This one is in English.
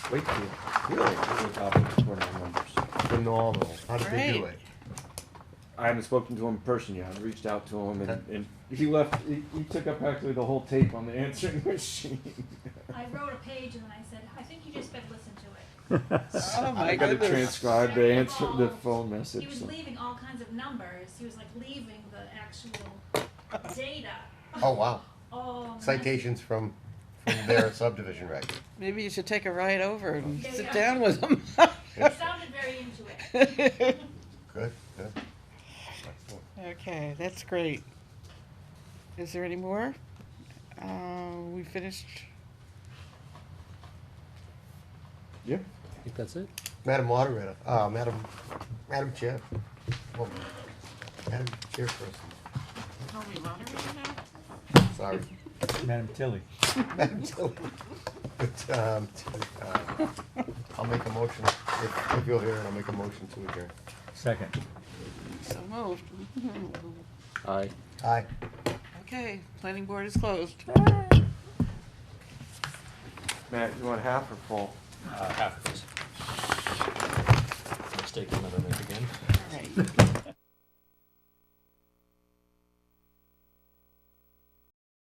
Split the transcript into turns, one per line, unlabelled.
Wakefield, really, really popular tournament members.
Phenomenal. How did they do
Great.
it?
I haven't spoken to him in person yet, I've reached out to him and, and he left, he, he took up actually the whole tape on the answering machine.
I wrote a page and then I said, I think you just better listen to it.
Oh my
I gotta
goodness.
transcribe the answer, the phone
He
message.
was
so-
leaving all kinds of numbers. He was like leaving the actual data.
Oh, wow.
Oh,
Citations from, from their subdivision record.
Maybe you should take a ride over and
Yeah,
sit
yeah.
down with them.
man. He sounded very into it.
Good, good.
Okay, that's great. Is there any more? Uh, we finished,
Yeah,
I think that's it.
Madam Moderator, uh, Madam, Madam Chair. Well, Madam Chairperson,
are we moderating now?
sorry.
Madam Tilly.
Madam Tilly. But, um, uh, I'll make a motion, if, if you'll hear it, I'll make a motion to adjourn.
Second.
So moved.
Aye.
Aye.
Okay, planning board is closed.
Matt, you want half or full?
Uh, half of this. Let's take another